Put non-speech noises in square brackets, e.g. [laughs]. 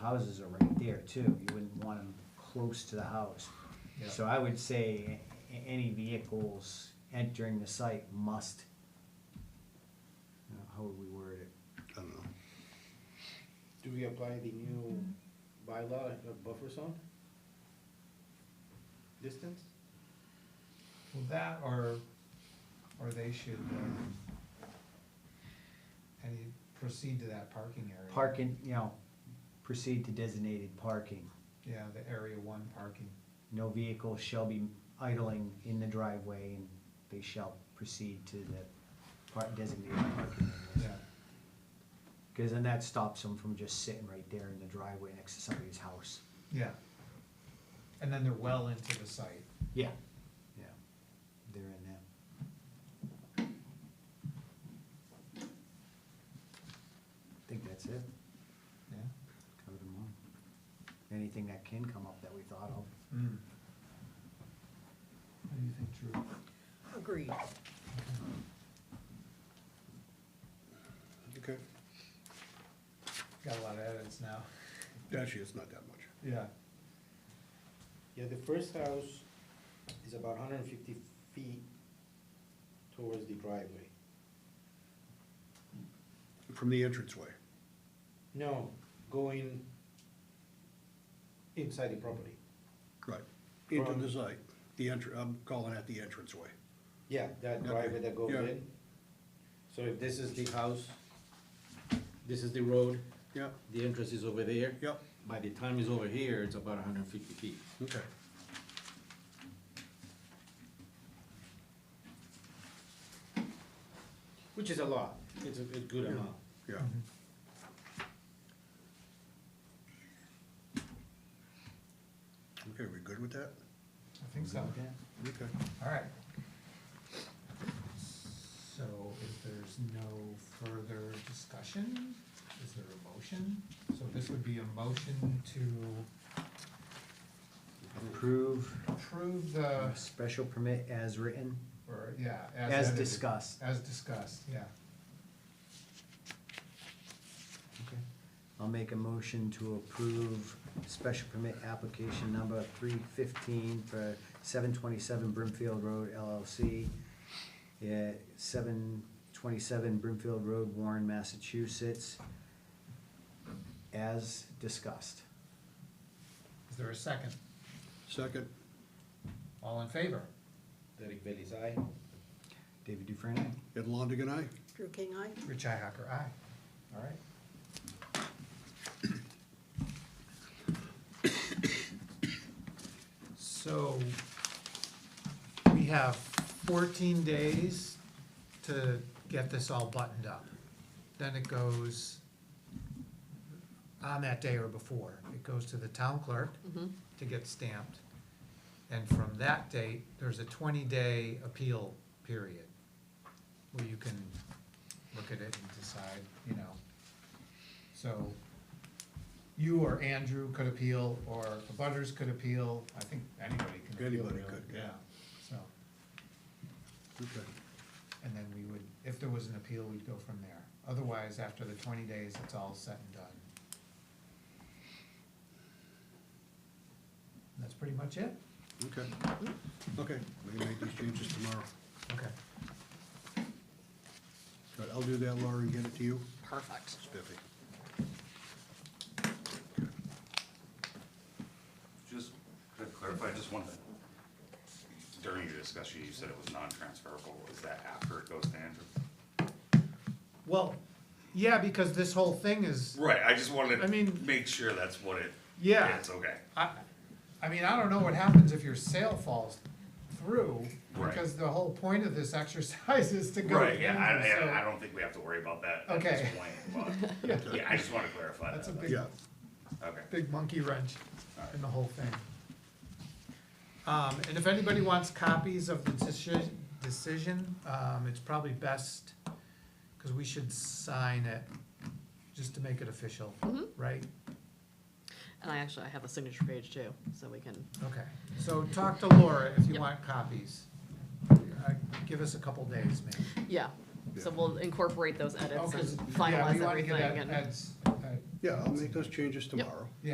houses are right there too, you wouldn't want them close to the house. Yeah. So I would say a- any vehicles entering the site must, you know, how would we word it? I don't know. Do we apply the new bylaw of buffer zone? Distance? Well, that or, or they should, um, and you proceed to that parking area. Parking, you know, proceed to designated parking. Yeah, the area one parking. No vehicle shall be idling in the driveway and they shall proceed to the par- designated parking. Yeah, Cause then that stops them from just sitting right there in the driveway next to somebody's house. yeah. And then they're well into the site. Yeah. Yeah, they're in that. I think that's it, Yeah. covered them all. Anything that can come up that we thought of. Mm. What do you think, Drew? Agreed. Okay. Got a lot of edits now. Actually, it's not that much. Yeah. Yeah, the first house is about hundred and fifty feet towards the driveway. From the entranceway. No, going inside the property. Right. Into From- the site, the entr, I'm calling it the entranceway. Yeah, that driveway that goes Yeah. in. So if this is the house, this is the road, Yeah, the entrance is over there. Yep. By the time it's over here, it's about hundred and fifty feet. okay. Which is a lot, it's a, it's good amount. Yeah, Mm-hmm. okay, we good with that? I think so. Okay. Okay. All right. So if there's no further discussion, is there a motion? So this would be a motion to Approve approve the, special permit as written, or, yeah. as edited. discussed. As discussed, yeah. Okay. I'll make a motion to approve special permit application number three fifteen for seven twenty-seven Brimfield Road LLC. Yeah, seven twenty-seven Brimfield Road, Warren, Massachusetts, as discussed. Is there a second? Second, All in favor? Derek Bailey's eye. David Dufresne, aye? Ed Longigan, aye? Drew King, I. Richi Hacker, aye. All right. So we have fourteen days to get this all buttoned up. Then it goes on that day or before. It goes to the town clerk to get stamped. And from that date, there's a twenty-day appeal period where you can look at it and decide, you know. So you or Andrew could appeal, or the butters could appeal, I think anybody can appeal. Anybody really, could, yeah. Yeah, so, Okay. and then we would, if there was an appeal, we'd go from there. Otherwise, after the twenty days, it's all set and done. That's pretty much it? Okay. Okay, we can make these changes tomorrow. Okay. But I'll do that, Laura, and get it to you. Perfect. Spiffy. Just to clarify, just one thing. During your discussion, you said it was non-transferable. Is that after it goes to Andrew? Well, yeah, because this whole thing is. Right, I just wanted I mean- to make sure that's what it, Yeah. it's okay. I, I mean, I don't know what happens if your sale falls through, Right. because the whole point of this [laughs] exercise is to go. Right, yeah, in, so- I, I, I don't think we have to worry about that at this Okay. point, [laughs] but, yeah, I just wanna clarify that. That's a big, Yeah, Okay. big monkey wrench in the whole thing. Um, and if anybody wants copies of the decision, decision, um, it's probably best, cause we should sign it, just to make it official, Mm-hmm. right? And I actually, I have a signature page too, so we can, Okay, so talk to Laura if you Yep. want copies. Uh, Give us a couple days maybe. yeah. So Yeah. we'll incorporate those edits Okay, and yeah, we finalize wanna get everything that- and, that's- uh, yeah, I'll make those changes tomorrow.